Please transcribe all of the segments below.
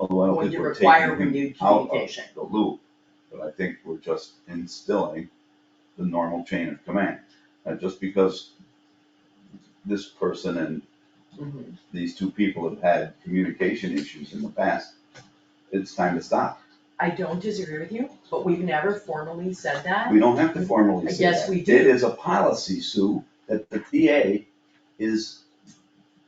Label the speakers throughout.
Speaker 1: know,
Speaker 2: When
Speaker 1: cause
Speaker 2: you
Speaker 1: we're
Speaker 2: require
Speaker 1: taking him
Speaker 2: renewed
Speaker 1: out of
Speaker 2: communication.
Speaker 1: the loop, but I think we're just instilling the normal chain of command. And just because this person and
Speaker 2: Mhm.
Speaker 1: these two people have had communication issues in the past, it's time to stop.
Speaker 2: I don't disagree with you, but we've never formally said that.
Speaker 1: We don't have to formally say that.
Speaker 2: Yes, we do.
Speaker 1: It is a policy, Sue, that the TA is, is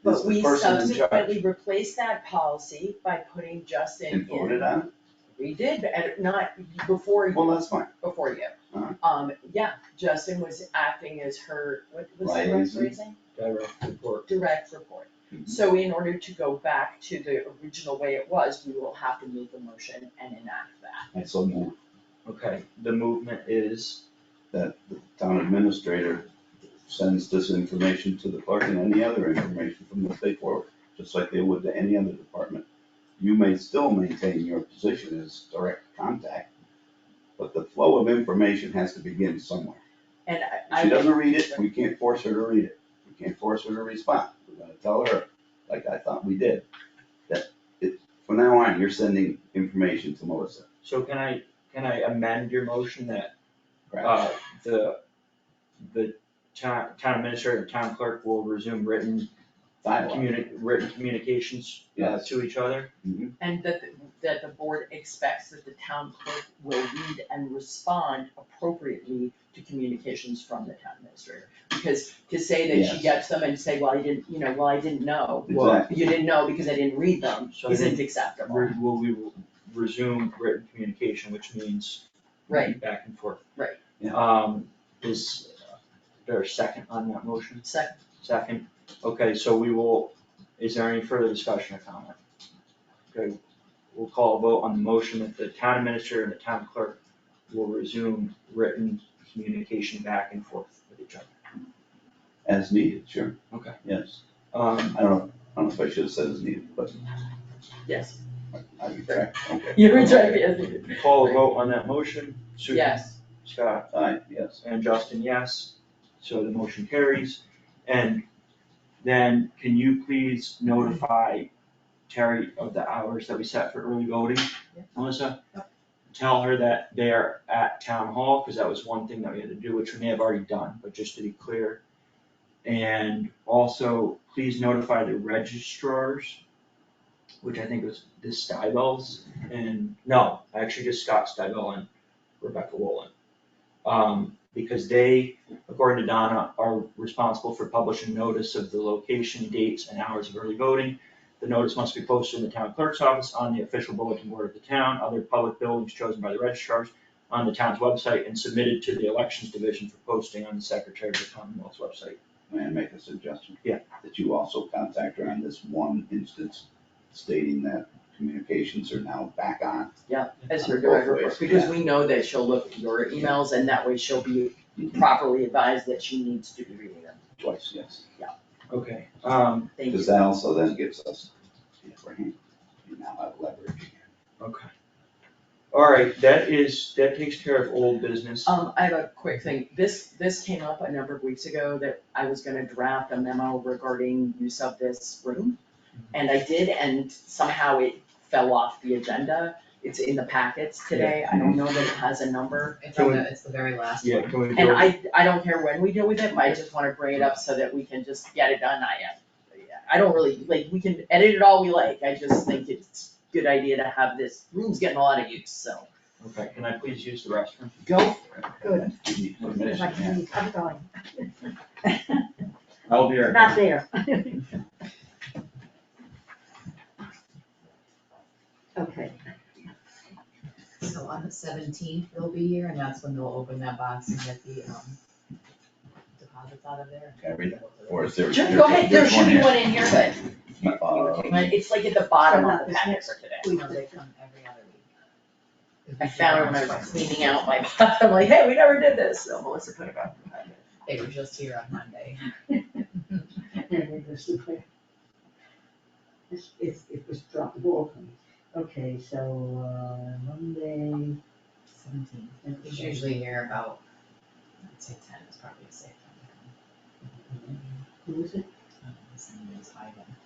Speaker 2: But we
Speaker 1: the person in charge.
Speaker 2: subsequently replaced that policy by putting Justin in.
Speaker 1: And voted on
Speaker 2: We did, but at- not before,
Speaker 1: it? Well, that's fine.
Speaker 2: before you.
Speaker 1: Alright.
Speaker 2: Um, yeah, Justin was acting as her, what was the right
Speaker 1: Liaison.
Speaker 2: phrasing?
Speaker 3: direct report.
Speaker 2: direct report.
Speaker 1: Mhm.
Speaker 2: So in order to go back to the original way it was, we will have to make a motion and enact that.
Speaker 1: I so move
Speaker 3: Okay, the movement is,
Speaker 1: that the town administrator sends this information to the clerk and any other information from the state forward, just like they would to any other department. You may still maintain your position as direct contact, but the flow of information has to begin somewhere.
Speaker 2: And
Speaker 1: If
Speaker 2: I,
Speaker 1: she
Speaker 2: I,
Speaker 1: doesn't read it, we can't force her to read it. We can't force her to respond. We're gonna tell her, like I thought we did, that it, from now on, you're sending information to Melissa.
Speaker 3: so can I, can I amend your motion that,
Speaker 1: Correct?
Speaker 3: uh, the, the town, town administrator and town clerk will resume written
Speaker 1: Dialogue.
Speaker 3: communi, written communications uh,
Speaker 1: Yes.
Speaker 3: to each other?
Speaker 1: Mhm.
Speaker 2: and that, the- that the board expects that the town clerk will read and respond appropriately to communications from the town administrator. Because to say that she
Speaker 1: Yes.
Speaker 2: gets them and say, well, I didn't, you know, well, I didn't know,
Speaker 3: Well,
Speaker 1: Exactly.
Speaker 2: you didn't know because I didn't read them,
Speaker 3: So
Speaker 2: isn't
Speaker 3: then,
Speaker 2: acceptable.
Speaker 3: re- will we resume written communication, which means
Speaker 2: Right.
Speaker 3: back and forth?
Speaker 2: Right.
Speaker 1: Yeah.
Speaker 3: Um, is there a second on that motion?
Speaker 2: Second,
Speaker 3: Second, okay, so we will, is there any further discussion or comment? Okay, we'll call a vote on the motion that the town administrator and the town clerk will resume written communication back and forth with each other.
Speaker 1: As needed, sure.
Speaker 3: Okay.
Speaker 1: Yes.
Speaker 3: Um,
Speaker 1: I don't know, I don't know if I should have said as needed, but
Speaker 2: yes,
Speaker 1: I retract, okay.
Speaker 2: you're exactly, as needed.
Speaker 3: call a vote on that motion, Susan?
Speaker 2: yes,
Speaker 3: Scott
Speaker 1: Aye, yes.
Speaker 3: and Justin, yes, so the motion carries. And then can you please notify Terry of the hours that we set for early voting?
Speaker 2: Yeah.
Speaker 3: Melissa? Tell her that they are at town hall, cause that was one thing that we had to do, which we may have already done, but just to be clear. And also, please notify the registrars, which I think was the Stibels and, no, actually just Scott Stibel and Rebecca Wolin. Um, because they, according to Donna, are responsible for publishing notice of the location, dates, and hours of early voting. The notice must be posted in the town clerk's office, on the official bulletin board of the town, other public buildings chosen by the registrars, on the town's website, and submitted to the elections division for posting on the secretary of the Commonwealth's website.
Speaker 1: May I make a suggestion?
Speaker 3: Yeah.
Speaker 1: That you also contact her on this one instance stating that communications are now back on.
Speaker 2: as your
Speaker 1: Both
Speaker 2: direct report,
Speaker 1: ways,
Speaker 2: because
Speaker 1: yeah.
Speaker 2: we know that she'll look at your emails and that way she'll be properly advised that she needs to be reading them.
Speaker 1: Twice, yes.
Speaker 3: Okay. Um,
Speaker 2: Thank
Speaker 1: Because
Speaker 2: you.
Speaker 1: that also then gives us the upper hand. You now have leverage.
Speaker 3: okay. All right, that is, that takes care of old business.
Speaker 2: Um, I have a quick thing. This, this came up a number of weeks ago that I was gonna draft a memo regarding use of this room.
Speaker 4: Mm-hmm.
Speaker 2: And I did, and somehow it fell off the agenda. It's in the packets today. I don't know that it has a number.
Speaker 4: Mm-hmm. It's on the, it's the very last one.
Speaker 3: Yeah, can we
Speaker 2: And
Speaker 3: go,
Speaker 2: I, I don't care when we deal with it, but I just wanna bring it up so that we can just get it done. I, I don't really, like, we can edit it all we like. I just think it's a good idea to have this, room's getting a lot of use, so
Speaker 3: okay, can I please use the restroom?
Speaker 2: go
Speaker 4: Good.
Speaker 1: You need permission, yeah.
Speaker 4: I'm going.
Speaker 3: I'll be right back.
Speaker 4: Not there. Okay. So on the seventeenth, they'll be here and that's when they'll open that box and get the, um, deposits out of there.
Speaker 1: Can I read that? Or is there?
Speaker 2: Sure, go ahead, there
Speaker 1: there's
Speaker 2: should be
Speaker 1: here.
Speaker 2: one in here, but
Speaker 1: Uh,
Speaker 2: it's like at the bottom of the packet for today.
Speaker 4: We know they come every other week.
Speaker 2: I found it when I was cleaning out my, I'm like, hey, we never did this, so Melissa put it back. in the packet.
Speaker 4: They were just here on Monday.
Speaker 5: And it was the clear. It's, it's, it was dropped, the ball from it. Okay, so, uh, Monday.
Speaker 4: Seventeenth.
Speaker 5: and-
Speaker 4: He's usually here about, I'd say ten is probably a safe time.
Speaker 5: Who was it?
Speaker 4: His name is Ivan.